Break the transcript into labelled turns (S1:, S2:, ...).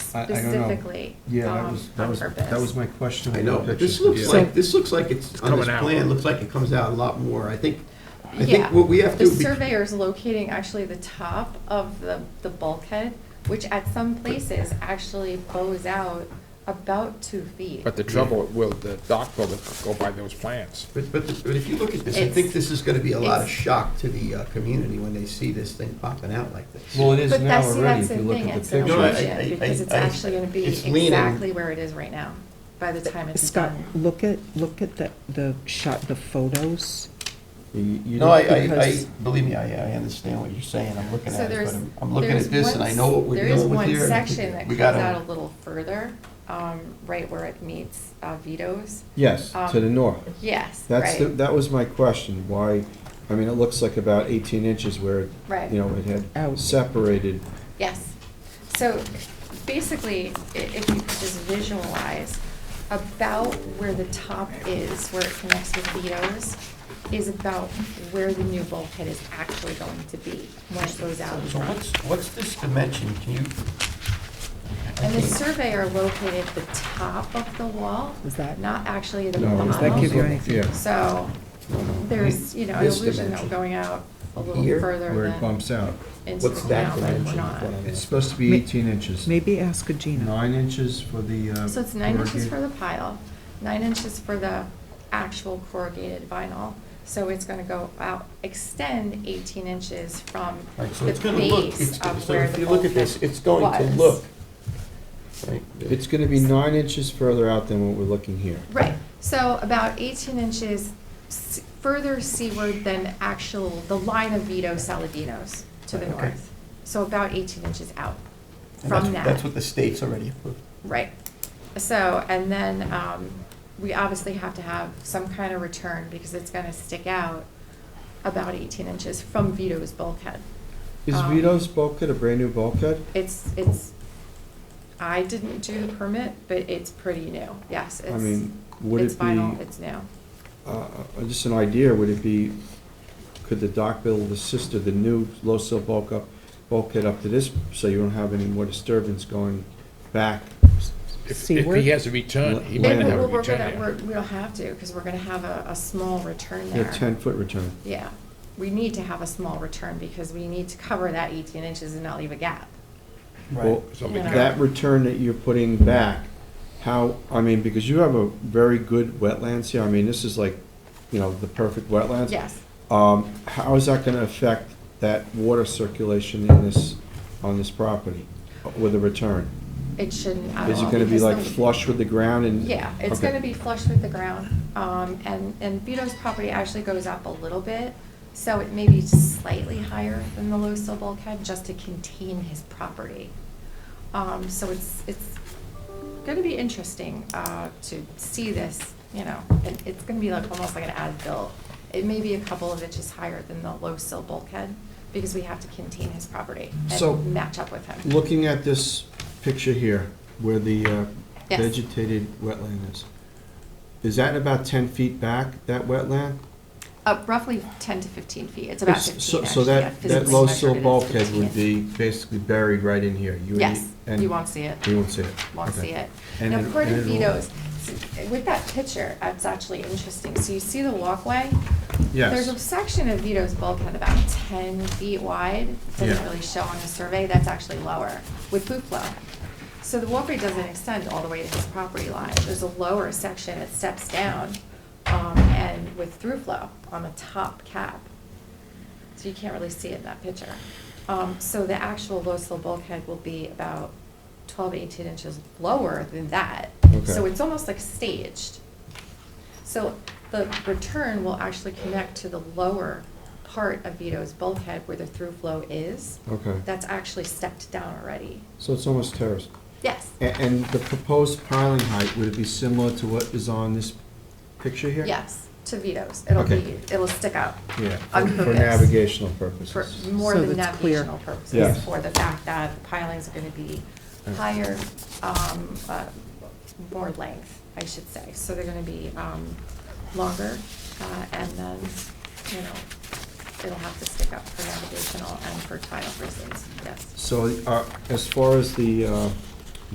S1: I- I don't know.
S2: specifically
S1: Yeah, that
S2: um,
S1: was-
S3: That
S2: on
S3: was- that was
S2: purpose.
S3: my question.
S4: I know,
S3: about
S4: this
S3: pictures.
S4: looks
S3: Yeah.
S4: like, this looks like it's, on this
S3: coming out.
S4: plan, looks like it comes out a lot more. I think, I
S2: Yeah.
S4: think what we have to.
S2: The
S4: be-
S2: surveyor is locating actually the top of the, the bulkhead, which at some places actually bows out about two feet.
S5: But the trouble, will the dock will go by those plans?
S4: But, but, but if you look at this, I think
S2: It's-
S4: this is gonna be a lot of
S2: it's-
S4: shock to the, uh, community when they see this thing popping out like this.
S3: Well, it is
S2: But
S3: now
S2: that's, see,
S3: already,
S2: that's
S3: if
S2: the
S3: you look
S2: thing,
S3: at the
S2: it's an
S4: No, I-
S3: pictures.
S4: I-
S2: illusion, because it's
S4: I- I-
S2: actually gonna be
S4: it's leaning.
S2: exactly where it is right now, by the time it's
S6: Scott,
S2: done.
S6: look at, look at the, the shot, the photos.
S3: You- you
S4: No, I, I, I,
S6: because-
S4: believe me, I, I understand what you're saying, I'm looking
S2: So
S4: at it,
S2: there's,
S4: but I'm, I'm looking
S2: there's
S4: at this and
S2: one-
S4: I know what we're
S2: there is
S4: dealing with
S2: one
S4: here. and I think
S2: section that
S4: we
S2: comes
S4: gotta-
S2: out a little further, um, right where it meets uh, Vito's.
S3: Yes, to the
S2: Um,
S3: north.
S2: Yes,
S3: That's, the-
S2: right,
S3: that was my question, why, I mean, it looks like about 18 inches where,
S2: Right.
S3: you know, it had
S6: Out.
S3: separated.
S2: yes. So basically, i- if you could just visualize about where the top is, where it connects with Vito's, is about where the new bulkhead is actually going to be when it goes out.
S4: So
S2: front.
S4: what's, what's this dimension, can you? I
S2: And the
S4: think-
S2: surveyor located the top of the wall,
S6: Is that-
S2: not actually the
S3: No,
S2: bottom.
S6: Does that give you
S3: Yeah.
S6: anything?
S2: So there's, you know, an
S4: This
S2: illusion that
S4: dimension.
S2: we're going out a little
S4: Here,
S2: further
S3: Where it
S2: than
S3: bumps out.
S2: into
S4: What's
S2: the
S4: that
S2: ground, but we're
S4: dimension?
S2: not.
S3: It's supposed to be
S6: Ma-
S3: 18 inches.
S6: Maybe ask Gina.
S3: Nine inches for the. uh,
S2: So it's nine inches
S3: corrugated-
S2: for the pile, nine inches for the actual corrugated vinyl. So it's gonna go out, extend eighteen inches from the
S4: Right, so it's gonna look, it's,
S2: base of
S4: so
S2: where
S4: if
S2: the
S4: you look at this,
S2: bulkhead
S4: it's going to
S2: was.
S4: look. right,
S3: It's going to be nine inches further out than what we're looking here.
S2: Right, so about 18 inches s- further seaward than actual, the line of Vito Saladino's to the
S4: Right, okay.
S2: north. So about 18 inches out
S4: and
S2: from
S4: that's-
S2: that.
S4: That's what the state's already approved.
S2: Right. So, and then um, we obviously have to have some kind of return because it's going to stick out about 18 inches from Vito's bulkhead.
S3: Is
S2: Um,
S3: Vito's bulkhead a brand-new bulkhead?
S2: It's, it's, I didn't do the permit, but it's pretty new. Yes,
S3: I
S2: it's,
S3: mean, would
S2: it's
S3: it
S2: vinyl,
S3: be,
S2: it's new.
S3: uh, uh, just an idea, would it be, could the dock build assist of the new low sill bulk up, bulkhead up to this, so you don't have any more disturbance going back?
S5: If, if
S6: Seaward?
S5: he has a return, he
S3: Yeah,
S5: might
S2: And
S5: not have a
S2: we're, we're
S5: return
S2: gonna, we're,
S5: there.
S2: we don't have to, because we're gonna have a, a small return
S3: A
S2: there.
S3: ten-foot return?
S2: Yeah, we need to have a small return, because we need to cover that eighteen inches and not leave a gap.
S3: Well,
S5: So
S2: You know.
S3: that return that you're putting back, how, I mean, because you have a very good wetlands here, I mean, this is like, you know, the perfect wetlands.
S2: Yes,
S3: Um, how is that gonna affect that water circulation in this, on this property with a return?
S2: it shouldn't at all.
S3: Is it gonna be
S2: because
S3: like
S2: the-
S3: flush with the ground and?
S2: Yeah, it's
S3: Okay.
S2: gonna be flush with the ground, um, and, and Vito's property actually goes up a little bit, so it may be slightly higher than the low sill bulkhead, just to contain his property. Um, so it's, it's gonna be interesting, uh, to see this, you know, and it's gonna be like, almost like an as-built. It may be a couple of inches higher than the low sill bulkhead, because we have to contain his property
S3: So,
S2: and match up with him.
S3: Looking at this picture here, where the uh,
S2: Yes.
S3: vegetated wetland is, is that about ten feet back, that wetland?
S2: Uh, roughly ten to fifteen feet, it's about
S3: So-
S2: fifteen,
S3: So
S2: actually, yeah,
S3: that, that
S2: physically
S3: low
S2: measured
S3: sill
S2: it is
S3: bulkhead would
S2: 15.
S3: be basically buried right in here. You would-
S2: Yes,
S3: and
S2: you won't see it,
S3: You won't see it.
S2: won't
S3: Okay.
S2: see it.
S3: And
S2: Now,
S3: it-
S2: according to
S3: and it'll-
S2: Vito's, s- with that picture, it's actually interesting, so you see the walkway? There's a
S3: Yes,
S2: section of Vito's bulkhead about ten feet wide, doesn't
S3: Yeah.
S2: really show on the survey, that's actually lower, with boot flow. So the walkway doesn't extend all the way to his property line, there's a lower section that steps down, um, and with through flow on the top cap so you can't really see it in that picture. Um, so the actual low sill bulkhead will be about 12, 18 inches lower than that.
S3: Okay.
S2: So it's almost like staged. So the return will actually connect to the lower part of Vito's bulkhead where the through flow is.
S3: okay.
S2: That's actually stepped down already.
S3: So it's almost terraced.
S2: Yes,
S3: A- And the proposed piling height, would it be similar to what is on this picture here?
S2: yes, to Vito's. It'll
S3: Okay.
S2: be, it'll stick out
S3: Yeah, for
S2: On
S3: for
S2: purpose.
S3: navigational
S2: for
S3: purposes.
S2: more
S6: So
S2: than
S6: that's clear.
S2: navigational purposes,
S3: Yes.
S2: for the fact that the pilings are gonna be
S3: Yeah.
S2: higher, um, uh, more length, I should say. So they're gonna be, um, longer, uh, and then, you know, it'll have to stick up for navigational and for tile reasons, yes.
S3: So uh, as far as the uh,